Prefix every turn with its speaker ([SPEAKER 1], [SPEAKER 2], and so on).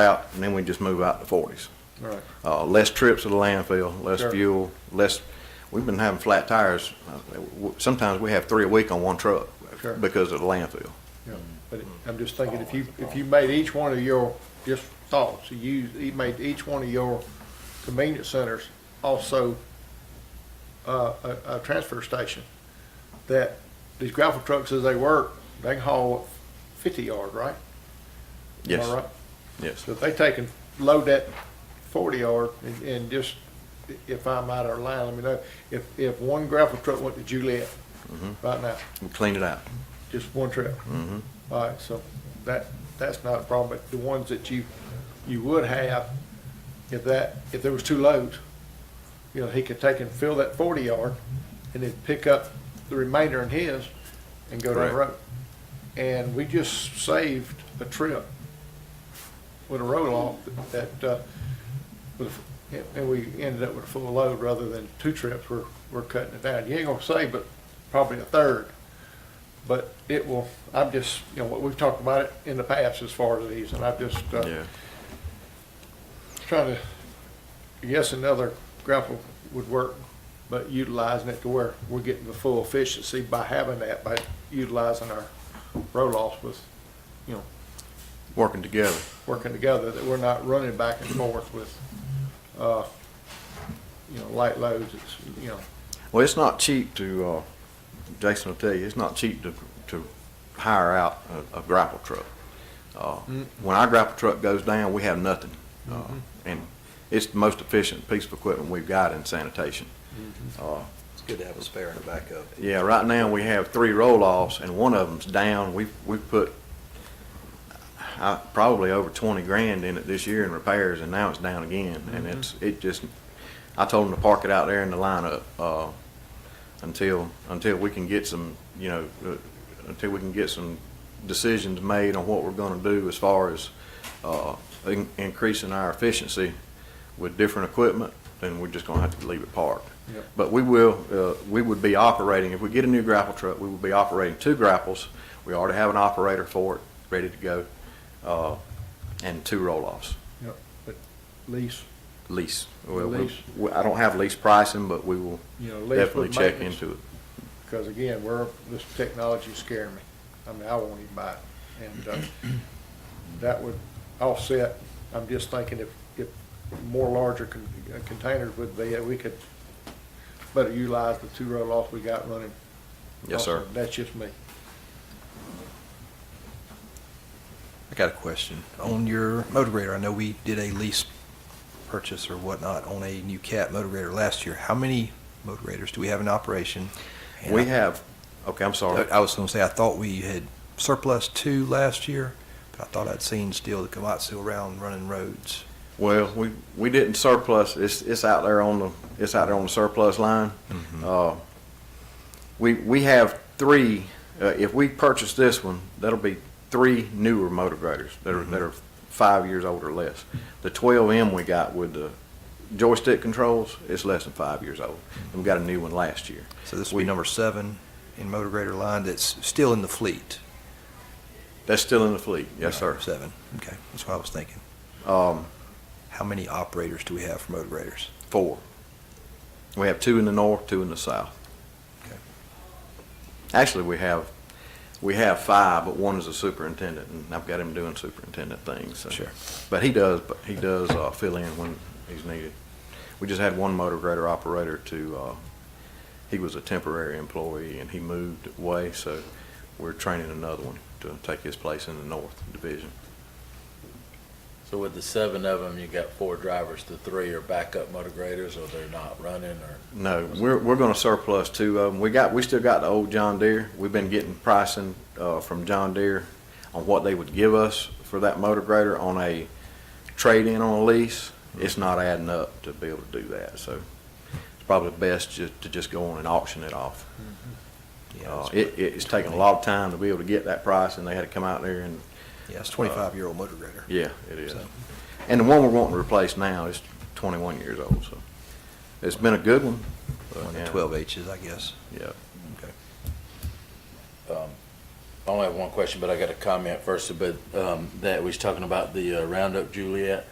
[SPEAKER 1] out, and then we just move out to forties.
[SPEAKER 2] Right.
[SPEAKER 1] Uh, less trips to the landfill, less
[SPEAKER 2] Sure.
[SPEAKER 1] fuel, less, we've been having flat tires. Uh, w- Sometimes we have three a week on one truck
[SPEAKER 2] Sure.
[SPEAKER 1] because of the landfill.
[SPEAKER 2] Yeah, but I'm just thinking, if you, if you made each one of your, just thoughts, you, you made each one of your convenience centers also uh, a, a transfer station, that these gravel trucks, as they work, they can haul fifty yard, right? Am I
[SPEAKER 1] Yes,
[SPEAKER 2] right?
[SPEAKER 1] yes.
[SPEAKER 2] So if they take and load that forty yard and, and just, if I'm out of line, let me know, if, if one gravel truck went to Juliet right now,
[SPEAKER 1] We clean it out.
[SPEAKER 2] just one trip? All right, so that, that's not a problem, but the ones that you, you would have, if that, if there was two loads, you know, he could take and fill that forty yard and then pick up the remainder in his and go down the
[SPEAKER 1] Correct.
[SPEAKER 2] road. And we just saved a trip with a roll off that, uh, with, and we ended up with a full load rather than two trips, we're, we're cutting it down. You ain't gonna save, but probably a third. But it will, I'm just, you know, what we've talked about it in the past as far as these, and I'm just, uh,
[SPEAKER 1] Yeah.
[SPEAKER 2] trying to, yes, another grapple would work, but utilizing it to where we're getting the full efficiency by having that, by utilizing our roll offs with, you know,
[SPEAKER 1] Working together.
[SPEAKER 2] working together, that we're not running back and forth with, uh, you know, light loads, it's, you know,
[SPEAKER 1] Well, it's not cheap to, uh, Jason will tell you, it's not cheap to, to hire out a, a grapple truck. Uh,
[SPEAKER 2] Mm. Mm-hmm.
[SPEAKER 1] when our grapple truck goes down, we have nothing. Uh, and it's the most efficient piece of equipment we've got in sanitation. Uh,
[SPEAKER 3] It's good to have a spare and a backup.
[SPEAKER 1] Yeah, right now we have three roll-offs and one of them's down. We've, we've put uh, probably over twenty grand in it this year in repairs and now it's down again. And it's, it just, I told them to park it out there in the lineup, uh, until, until we can get some, you know, uh, until we can get some decisions made on what we're gonna do as far as, uh, in- increasing our efficiency with different equipment, then we're just gonna have to leave it parked.
[SPEAKER 2] Yep.
[SPEAKER 1] But we will, uh, we would be operating, if we get a new grapple truck, we would be operating two grapples. We already have an operator for it, ready to go, uh, and two roll-offs,
[SPEAKER 2] you know, but lease,
[SPEAKER 1] lease. Well, we-
[SPEAKER 2] Lease.
[SPEAKER 1] we- I don't have lease pricing, but we will
[SPEAKER 2] you know, lease with
[SPEAKER 1] definitely check
[SPEAKER 2] maintenance.
[SPEAKER 1] into it.
[SPEAKER 2] Because again, we're, this technology's scaring me. I mean, I won't even buy it. And uh, that would offset, I'm just thinking if, if more larger con- uh, containers would be, uh, we could better utilize the two roll-offs we got running.
[SPEAKER 1] Yes, sir.
[SPEAKER 2] That's just me.
[SPEAKER 3] I got a question. On your motivator, I know we did a lease purchase or whatnot on a new cat motivator last year. How many motivators do we have in operation? And
[SPEAKER 1] We
[SPEAKER 3] I-
[SPEAKER 1] have, okay, I'm sorry.
[SPEAKER 3] I was gonna say, I thought we had surplus two last year, but I thought I'd seen still the Komatsu around running roads.
[SPEAKER 1] Well, we, we didn't surplus, it's, it's out there on the, it's out there on the surplus line. Uh, We, we have three, uh, if we purchase this one, that'll be three newer motor graders that are, that are five years old or less. The twelve M we got with the joystick controls, it's less than five years old. And we got a new one last year.
[SPEAKER 3] So this will be number seven in motivator line that's still in the fleet.
[SPEAKER 1] That's still in the fleet, yes, sir.
[SPEAKER 3] Seven. Okay, that's what I was thinking.
[SPEAKER 1] Um,
[SPEAKER 3] How many operators do we have for motivators?
[SPEAKER 1] four. We have two in the north, two in the south.
[SPEAKER 3] Okay.
[SPEAKER 1] Actually, we have, we have five, but one is a superintendent, and I've got him doing superintendent things. so-
[SPEAKER 3] Sure.
[SPEAKER 1] But he does, but he does uh, fill in when he's needed. We just had one motor grader operator to, uh, he was a temporary employee, and he moved away, so we're training another one to take his place in the north division.
[SPEAKER 4] So with the seven of them, you got four drivers, the three are backup motor graders, or they're not running, or?
[SPEAKER 1] No, we're, we're gonna surplus two of them. We got, we still got the old John Deere. We've been getting pricing, uh, from John Deere on what they would give us for that motor grader on a trade-in on a lease. It's not adding up to be able to do that, so it's probably best ju- to just go on and auction it off.
[SPEAKER 3] Yeah,
[SPEAKER 1] Uh,
[SPEAKER 3] it's-
[SPEAKER 1] it, it's taken a lot of time to be able to get that price, and they had to come out there and,
[SPEAKER 3] Yeah, it's twenty-five year old motor grader.
[SPEAKER 1] yeah, it is.
[SPEAKER 3] So-
[SPEAKER 1] And the one we're wanting to replace now is twenty-one years old, so it's been a good one. but,
[SPEAKER 3] One
[SPEAKER 1] yeah,
[SPEAKER 3] of twelve H's, I guess.
[SPEAKER 1] Yeah.
[SPEAKER 3] Okay.
[SPEAKER 4] um, I only have one question, but I got a comment first, but, um, that we was talking about the uh, Roundup Juliet.